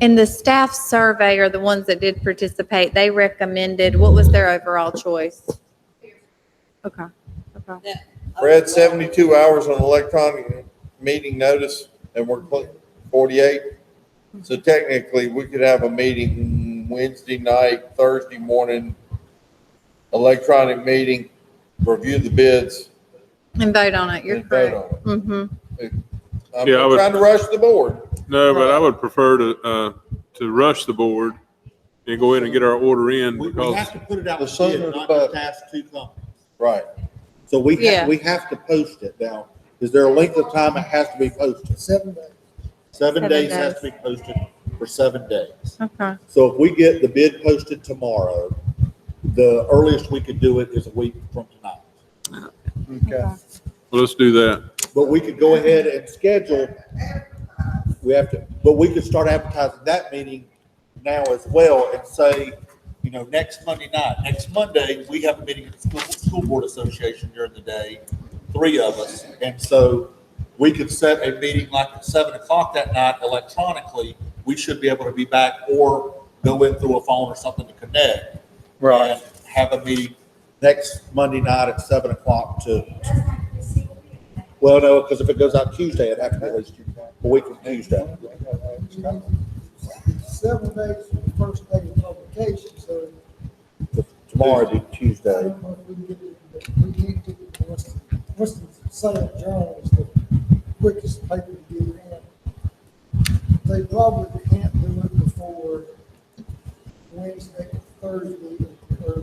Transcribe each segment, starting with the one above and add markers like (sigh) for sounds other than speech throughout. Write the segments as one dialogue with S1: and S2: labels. S1: And the staff survey or the ones that did participate, they recommended, what was their overall choice? Okay, okay.
S2: We're at seventy-two hours on electronic meeting notice and we're cl- forty-eight. So technically, we could have a meeting Wednesday night, Thursday morning, electronic meeting, review the bids.
S1: And vote on it, you're
S2: and vote
S1: correct.
S2: on it.
S1: Mm-hmm.
S2: I'm
S3: Yeah, I
S2: not
S3: would-
S2: trying to rush the board.
S3: No, but I would prefer to, uh, to rush the board and go in and get our order in
S4: We, we
S3: because,
S4: have to put it out
S2: The
S4: to
S2: sooner
S4: bid,
S2: the
S4: not
S2: better.
S4: just ask two companies.
S2: Right.
S4: So we
S1: Yeah.
S4: have, we have to post it now. Is there a length of time it has to be posted? Seven days.
S1: Seven
S4: Seven days has
S1: days.
S4: to be posted for seven days.
S1: Okay,
S4: So if we get the bid posted tomorrow, the earliest we could do it is a week from tonight.
S1: Okay.
S3: well, let's do that.
S4: But we could go ahead and schedule, we have to, but we could start advertising that meeting now as well and say, you know, next Monday night, next Monday, we have a meeting at the School, School Board Association during the day, three of us. And so we could set a meeting like at seven o'clock that night electronically. We should be able to be back or go in through a phone or something to connect. and Have a meeting next Monday night at seven o'clock to well, no, because if it goes out Tuesday, it'd have to be at least a week from Tuesday.
S5: Seven days from the first day of publication, so.
S4: Tomorrow would be
S5: I
S4: Tuesday.
S5: don't know if we can get it, but we can't get it, what's, the- what's the sale journal is the quickest paper to get it in. They probably can't do it before Wednesday, Thursday, or,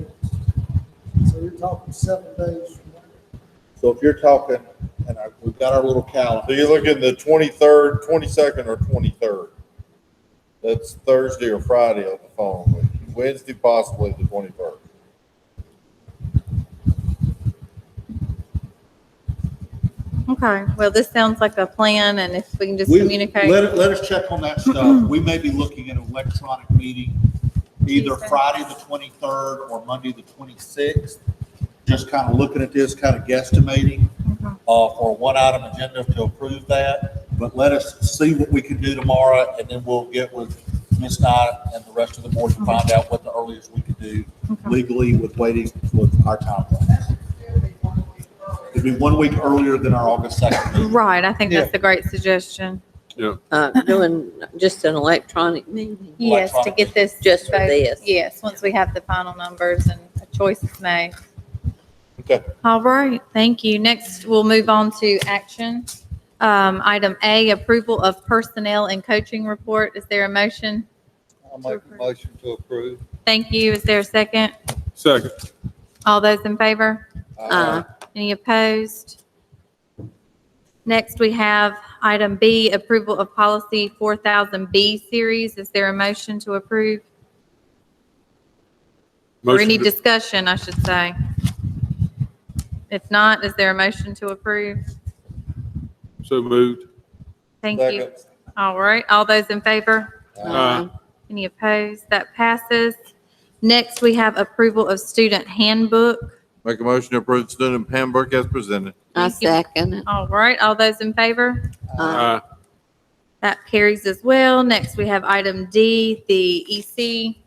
S5: so you're talking seven days from now.
S4: So if you're talking, and I, we've got our little
S2: So
S4: calendar,
S2: you're looking the twenty-third, twenty-second, or twenty-third? That's Thursday or Friday on the phone, but Wednesday possibly the twenty-third.
S1: okay. Well, this sounds like a plan and if we can just
S4: we,
S1: communicate.
S4: let, let us check on
S1: (clears throat)
S4: that stuff. We may be looking at an electronic meeting either
S1: Tuesday.
S4: Friday the twenty-third or Monday the twenty-sixth. Just kind of looking at this, kind of guesstimating, uh,
S1: Okay.
S4: for a one-item agenda to approve that. But let us see what we can do tomorrow and then we'll get with Ms. Knight and the rest of the board to find out what the earliest we could do
S1: Mm-hmm. Okay.
S4: legally with waiting with our timeline. It'd be one week earlier than our August second meeting.
S1: Right, I think that's a great suggestion.
S6: uh, doing just an electronic meeting.
S1: Yes, to get this.
S6: Just for
S1: vote-
S6: this.
S1: Yes, once we have the final numbers and a choice is made.
S2: Okay.
S1: All right, thank you. Next, we'll move on to action. Um, item A, approval of personnel and coaching report. Is there a motion?
S7: I'll make a motion to approve.
S1: Thank you. Is there a second?
S3: Second,
S1: All those in favor?
S6: Uh,
S1: Any opposed? Next, we have item B, approval of policy 4000B series. Is there a motion to approve? Or
S3: motion,
S1: any
S3: to-
S1: discussion, I should say. If not, is there a motion to approve?
S3: so moved.
S1: Thank you. All right, all those in favor?
S4: Uh-huh.
S3: Uh,
S1: Any opposed? That passes. Next, we have approval of student handbook.
S2: Make a motion to approve student handbook as presented.
S6: I second it.
S1: All right, all those in favor?
S6: Uh,
S3: uh,
S1: That carries as well. Next, we have item D, the EC,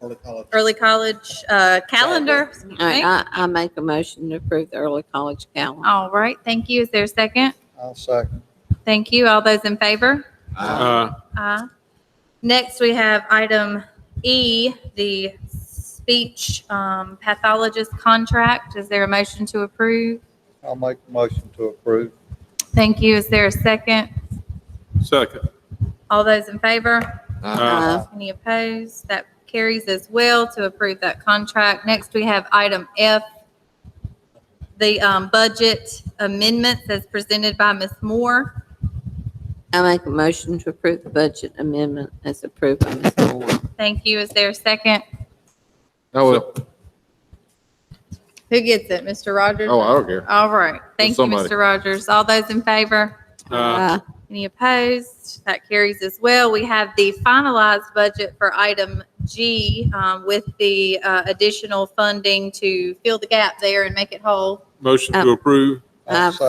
S4: Early college.
S1: early college uh, calendar.
S6: All right, I, I make a motion to approve the early college calendar.
S1: All right, thank you. Is there a second?
S7: I'll second.
S1: Thank you. All those in favor?
S3: uh,
S1: Aye. Next, we have item E, the speech um, pathologist contract. Is there a motion to approve?
S7: I'll make a motion to approve.
S1: Thank you. Is there a second?
S3: second.
S1: All those in favor?
S3: Uh,
S1: Any opposed? That carries as well to approve that contract. Next, we have item F, the um, budget amendments as presented by Ms. Moore.
S6: I make a motion to approve the budget amendment as approved by Ms. Moore.
S1: Thank you. Is there a second?
S2: Oh, well.
S1: Who gets it? Mr. Rogers?
S2: oh, I don't care.
S1: All right. Thank you,
S2: Somebody.
S1: Mr. Rogers. All those in favor?
S3: uh,
S6: Uh,
S1: Any opposed? That carries as well. We have the finalized budget for item G um, with the uh, additional funding to fill the gap there and make it whole.
S3: Motion to approve.
S7: I'll
S6: Uh,
S7: second.